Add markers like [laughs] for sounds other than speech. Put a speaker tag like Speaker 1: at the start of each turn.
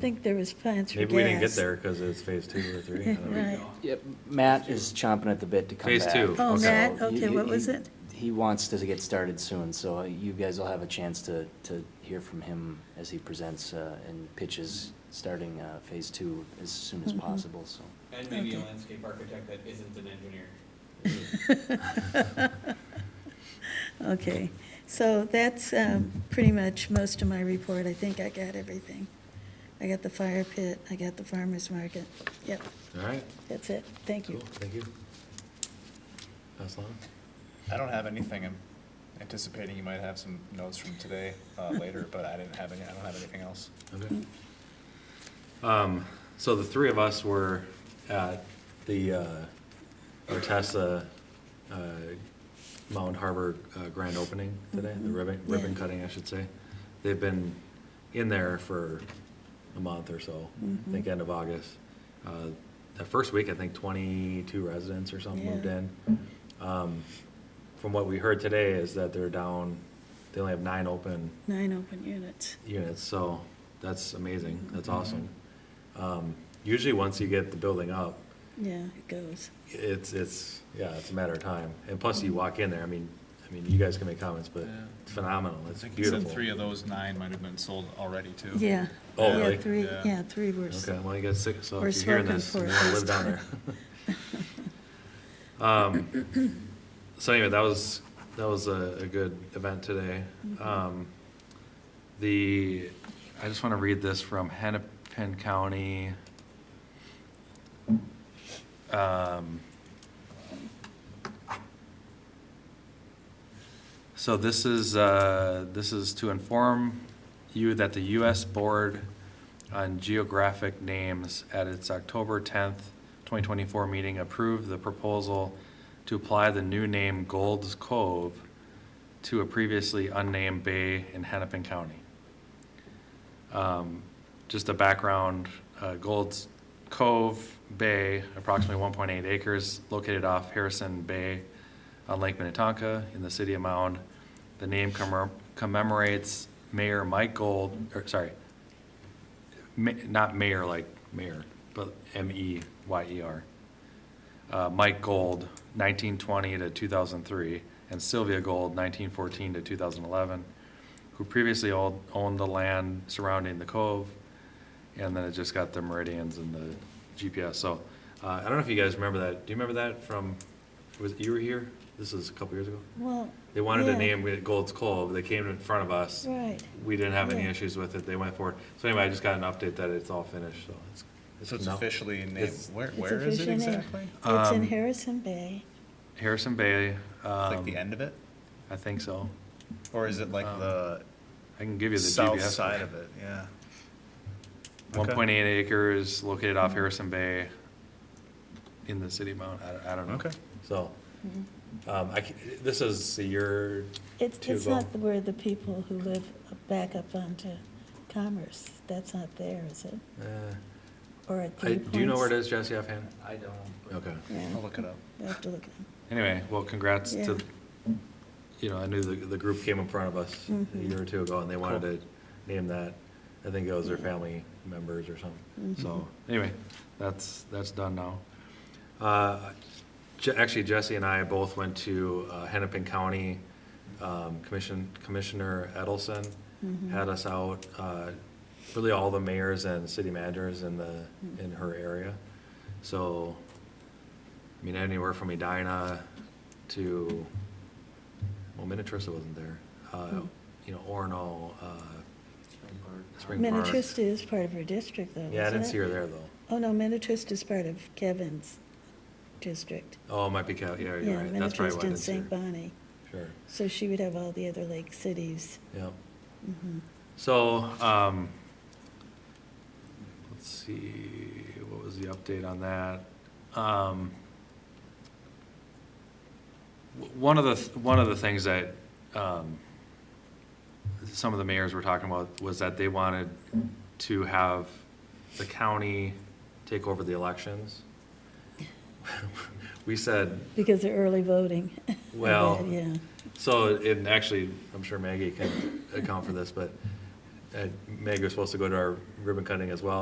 Speaker 1: think there was plans for gas.
Speaker 2: Maybe we didn't get
Speaker 1: [laughs]
Speaker 2: there because it's phase two or three. I don't know.
Speaker 1: Right.
Speaker 3: Yep, Matt is chomping at the bit to come back.
Speaker 2: Phase two.
Speaker 1: Oh,
Speaker 2: Okay.
Speaker 1: Matt,
Speaker 3: So he-
Speaker 1: okay, what
Speaker 3: he-
Speaker 1: was it?
Speaker 3: He wants to get started soon, so you guys will have a chance to, to hear from him as he presents uh, and pitches, starting uh, phase two as soon as
Speaker 1: Mm-hmm.
Speaker 3: possible, so.
Speaker 4: And maybe a
Speaker 1: Okay.
Speaker 4: landscape architect that isn't an engineer.
Speaker 1: Okay, so that's um, pretty much most of my report. I think I got everything. I got the fire pit, I got the farmer's market. Yep,
Speaker 2: All right,
Speaker 1: that's it. Thank
Speaker 2: cool,
Speaker 1: you.
Speaker 2: thank you. Aslan?
Speaker 5: I don't have anything. I'm anticipating you might have some notes from today,
Speaker 1: [laughs]
Speaker 5: uh, later, but I didn't have any, I don't have anything else.
Speaker 2: Okay.
Speaker 1: Mm.
Speaker 2: Um, so the three of us were at the, uh, Artesa, uh, Mound Harbor, uh, grand opening today, the ribbon,
Speaker 1: Mm-hmm. Yeah.
Speaker 2: ribbon cutting, I should say. They've been in there for a month or so,
Speaker 1: Mm-hmm.
Speaker 2: I think end of August. Uh, That first week, I think twenty-two residents or something moved
Speaker 1: Yeah.
Speaker 2: in. Um, From what we heard today is that they're down, they only have nine open
Speaker 1: Nine open units.
Speaker 2: units, so that's amazing, that's
Speaker 5: Mm-hmm.
Speaker 2: awesome. Um, Usually, once you get the building up,
Speaker 1: Yeah, it goes.
Speaker 2: it's, it's, yeah, it's a matter of time. And plus, you walk in there, I mean, I mean, you guys can make comments, but
Speaker 5: Yeah.
Speaker 2: it's phenomenal,
Speaker 5: I
Speaker 2: it's
Speaker 5: think you said
Speaker 2: beautiful.
Speaker 5: three of those nine might have been sold already too.
Speaker 1: Yeah.
Speaker 2: Oh,
Speaker 1: Yeah,
Speaker 2: really?
Speaker 1: Three,
Speaker 5: Yeah.
Speaker 1: yeah, three were. s-
Speaker 2: Okay, well, you got six, so
Speaker 1: We're
Speaker 2: if you're hearing
Speaker 1: smoking
Speaker 2: this, you
Speaker 1: for
Speaker 2: want
Speaker 1: it
Speaker 2: to
Speaker 1: this
Speaker 2: live down there.
Speaker 1: [laughs]
Speaker 2: [laughs] Um, So anyway, that was, that was a, a good event today.
Speaker 1: Mm-hmm.
Speaker 2: Um, The, I just want to read this from Hennepin County. Um, So this is, uh, this is to inform you that the U.S. Board on Geographic Names at its October 10th, 2024 meeting approved the proposal to apply the new name Gold's Cove to a previously unnamed bay in Hennepin County. Um, Just a background, uh, Gold's Cove Bay, approximately 1.8 acres, located off Harrison Bay on Lake Minnetonka in the city of Mound. The name commem- commemorates Mayor Mike Gold, or sorry, ma- not mayor like mayor, but M E Y E R. Uh, Mike Gold, nineteen twenty to two thousand three, and Sylvia Gold, nineteen fourteen to two thousand eleven, who previously all owned the land surrounding the cove. And then it just got the meridians and the GPS. So, uh, I don't know if you guys remember that. Do you remember that from, was, you were here? This is a couple years ago.
Speaker 1: Well.
Speaker 2: They wanted to
Speaker 1: yeah,
Speaker 2: name it Gold's Cove. They came in front of us
Speaker 1: Right.
Speaker 2: we didn't have any
Speaker 1: Yeah.
Speaker 2: issues with it, they went forward. So anyway, I just got an update that it's all finished, so it's.
Speaker 5: So it's
Speaker 2: No.
Speaker 5: officially named,
Speaker 2: It's-
Speaker 5: where,
Speaker 1: It's
Speaker 5: where is it
Speaker 1: officially named.
Speaker 5: exactly?
Speaker 1: It's in
Speaker 2: Um,
Speaker 1: Harrison Bay.
Speaker 2: Harrison Bay,
Speaker 5: It's Like
Speaker 2: um,
Speaker 5: the end of it?
Speaker 2: I think so.
Speaker 5: Or is it like
Speaker 2: um,
Speaker 5: the
Speaker 2: I can give you the GPS.
Speaker 5: south side of it? Yeah.
Speaker 2: One
Speaker 5: Okay.
Speaker 2: point eight acres located off Harrison Bay in the city mount, I, I don't know.
Speaker 5: Okay.
Speaker 2: So,
Speaker 1: Mm-hmm.
Speaker 2: um, I, c- this is a year,
Speaker 1: It's,
Speaker 2: two
Speaker 1: it's
Speaker 2: ago.
Speaker 1: not where the people who live back up onto Commerce, that's not there, is it?
Speaker 2: uh,
Speaker 1: Or at
Speaker 2: I,
Speaker 1: Three Points?
Speaker 2: do you know where it is, Jesse, offhand?
Speaker 4: I don't.
Speaker 2: Okay.
Speaker 1: Yeah,
Speaker 5: I'll look it up.
Speaker 1: I have to look it up.
Speaker 2: Anyway, well, congrats
Speaker 1: Yeah.
Speaker 2: to, you know, I knew the, the group came in front of us a
Speaker 1: Mhm.
Speaker 2: year or two ago, and they wanted
Speaker 3: Cool.
Speaker 2: to name that. I think it was their family members or something.
Speaker 1: Mm-hmm.
Speaker 2: So, anyway, that's, that's done now. Uh, Je- Actually, Jesse and I both went to uh, Hennepin County, um, Commission, Commissioner Edelson
Speaker 1: Mm-hmm.
Speaker 2: had us out, uh, really all the mayors and city managers in the,
Speaker 1: Hmm.
Speaker 2: in her area. So, I mean, anywhere from Edina to, well, Minnetrista wasn't there.
Speaker 1: Hmm.
Speaker 2: Uh, You know, Orono, uh, Spring Park.
Speaker 1: Minnetrista is part of her district, though, isn't it?
Speaker 2: Yeah, I didn't see her there, though.
Speaker 1: Oh, no, Minnetrista is part of Kevin's district.
Speaker 2: Oh, it might be Cal, yeah,
Speaker 1: Yeah,
Speaker 2: you're right. That's probably
Speaker 1: Minnetrista and
Speaker 2: why I didn't see
Speaker 1: St.
Speaker 2: her.
Speaker 1: Bonnie.
Speaker 2: Sure,
Speaker 1: So she would have all the other lake cities.
Speaker 2: yeah.
Speaker 1: Mhm.
Speaker 2: So, um, let's see, what was the update on that? Um, w- one of the, th- one of the things that, um, some of the mayors were talking about was that they wanted to have the county take over the elections. [laughs] We said,
Speaker 1: Because of early voting.
Speaker 2: Well,
Speaker 1: Yeah,
Speaker 2: so, and actually, I'm sure Maggie can account for this, but uh, Meg was supposed to go to our ribbon cutting as well,